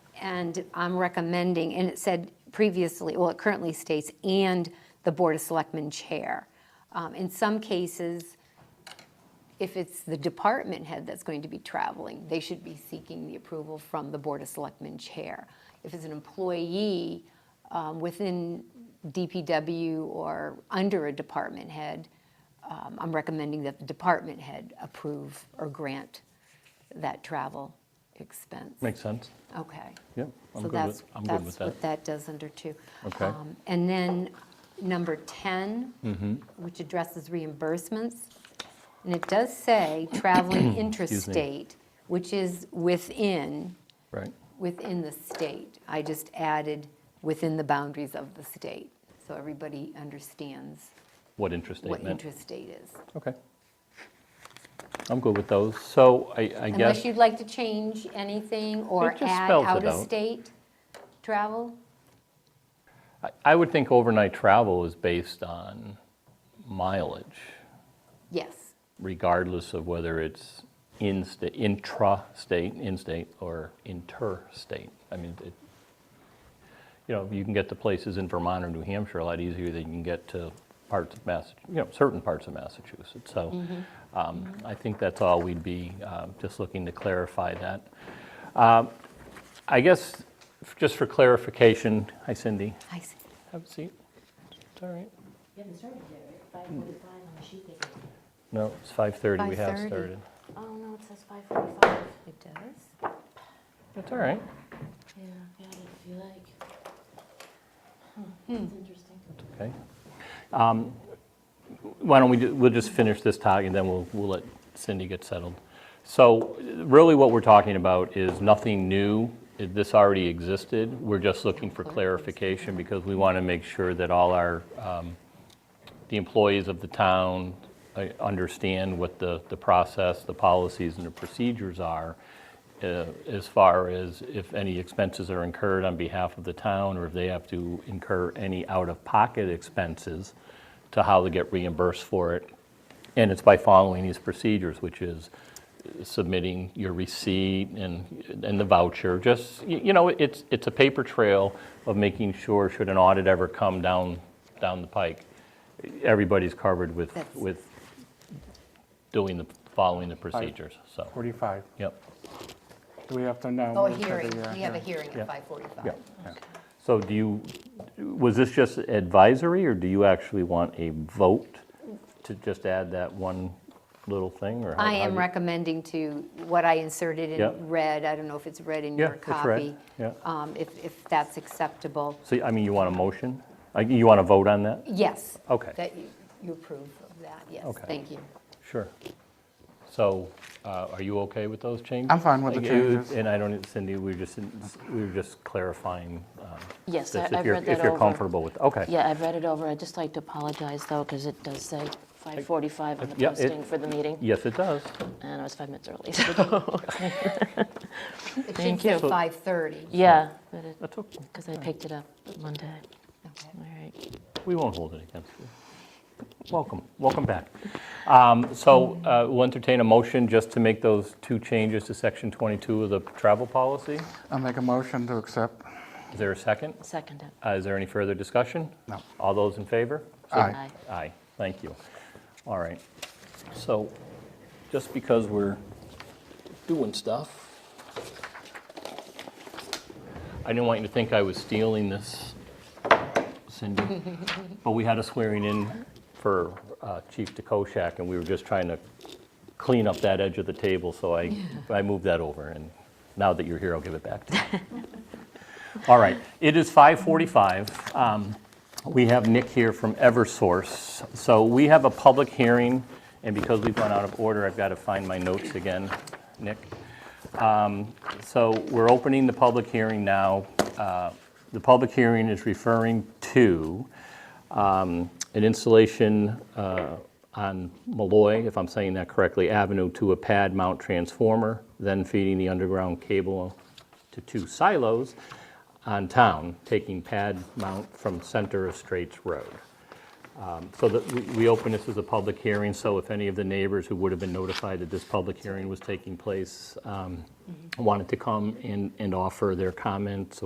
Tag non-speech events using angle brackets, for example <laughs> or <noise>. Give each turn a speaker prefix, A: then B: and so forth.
A: And I'm recommending, and it said previously, well, it currently states, and the Board of Selectmen Chair. Um, In some cases, if it's the department head that's going to be traveling, they should be seeking the approval from the Board of Selectmen Chair. If it's an employee um, within DPW or under a department head, um, I'm recommending that the department head approve or grant that travel expense.
B: Makes sense.
A: Okay.
B: Yep, I'm
A: So
B: good
A: that's,
B: with, I'm good with
A: that's
B: that.
A: what that does under two.
B: Okay.
A: Um, And then number 10,
B: Mm-hmm.
A: which addresses reimbursements. And it does
B: <coughs>
A: say traveling interstate, which is within,
B: Right.
A: within the state. I just added within the boundaries of the state, so everybody understands
B: What interest
A: what
B: statement?
A: interstate is.
B: Okay. I'm good with those. So I, I
A: Unless
B: guess,
A: you'd like to change anything or
B: It just
A: add
B: spells it out.
A: out-of-state travel?
B: I- I would think overnight travel is based on mileage,
A: Yes.
B: regardless of whether it's in sta- intra-state, in-state, or interstate. I mean, it, you know, you can get to places in Vermont or New Hampshire a lot easier than you can get to parts of Mass, you know, certain parts of Massachusetts. So um, I think that's all we'd be um, just looking to clarify that. Um, I guess, f- just for clarification, hi Cindy,
A: I see.
B: have a seat. It's all right.
C: You haven't started yet, right? Five forty-five on the sheet they gave you.
B: No, it's 5:30, we have
A: 5:30.
B: started.
C: Oh, no, it says five forty-five.
A: It does?
B: It's all right,
C: Yeah, Hmm. got it if you like. Huh, That's interesting.
B: okay. Um, Why don't we, ju- we'll just finish this talk and then we'll, we'll let Cindy get settled. So really what we're talking about is nothing new. It- This already existed. We're just looking for clarification because we want to make sure that all our the employees of the town uh, understand what the, the process, the policies, and the procedures are uh, as far as if any expenses are incurred on behalf of the town, or if they have to incur any out-of-pocket expenses, to how they get reimbursed for it. And it's by following these procedures, which is submitting your receipt and, and the voucher, just, y- you know, it's, it's a paper trail of making sure, should an audit ever come down, down the pike, everybody's covered with,
A: That's-
B: with doing the, following the procedures, so,
D: 45.
B: yep.
D: Do we have to know?
A: Oh, a
D: if it's
A: hearing,
D: uh,
A: we have a hearing at 5:45.
B: So do you, was this just advisory, or do you actually want a vote to just add that one little thing, or? how-
A: I
B: how
A: am
B: do you-
A: recommending to, what I inserted
B: Yeah.
A: in red, I don't know if it's red in
B: Yeah,
A: your
B: it's
A: copy.
B: red, yeah.
A: um, If, if that's acceptable,
B: So, I mean, you want a motion? Like, You want to vote on that?
A: yes.
B: Okay.
A: That you you approve of that, yes,
B: Okay.
A: thank you.
B: Sure. So, uh, are you okay with those changes?
D: I'm fine with the
B: Like, you-
D: changes.
B: And I don't, Cindy, we were just, we were just clarifying um,
C: Yes,
B: this,
C: I-
B: if
C: I've
B: you're,
C: read that over.
B: if you're comfortable with, okay.
C: Yeah, I've read it over. I'd just like to apologize, though, because it does say five forty-five on the
B: Yeah, it-
C: posting for the meeting,
B: Yes, it does.
C: and I was five
B: <laughs>
C: minutes early, <laughs> so,
A: It
C: Thank you.
A: should say 5:30.
C: yeah,
B: That's okay.
C: because I picked it up Monday.
A: Okay.
C: All right.
B: We won't hold it against you. Welcome, welcome back. Um, So uh, we'll entertain a motion just to make those two changes to section 22 of the travel policy.
D: I'll make a motion to accept.
B: Is there a second?
C: Second it.
B: Uh, Is there any further discussion?
D: No.
B: All those in favor?
D: Aye.
B: Aye, thank you. All right. So just because we're doing stuff, I didn't want you to think I was stealing this, Cindy, but we had a swearing in for uh, Chief DeKoschak, and we were just trying to clean up that edge of the table, so I, I moved that over, and now that you're here, I'll give it back to you. <laughs> All right, it is 5:45. Um, We have Nick here from Eversource. So we have a public hearing, and because we've gone out of order, I've got to find my notes again, Nick. Um, So we're opening the public hearing now. Uh, The public hearing is referring to um, an installation uh, on Malloy, if I'm saying that correctly, Avenue to a pad mount transformer, then feeding the underground cable to two silos on town, taking pad mount from center of Straits Road. Um, So that, we- we open this as a public hearing, so if any of the neighbors who would have been notified that this public hearing was taking place um, wanted to come and, and offer their comments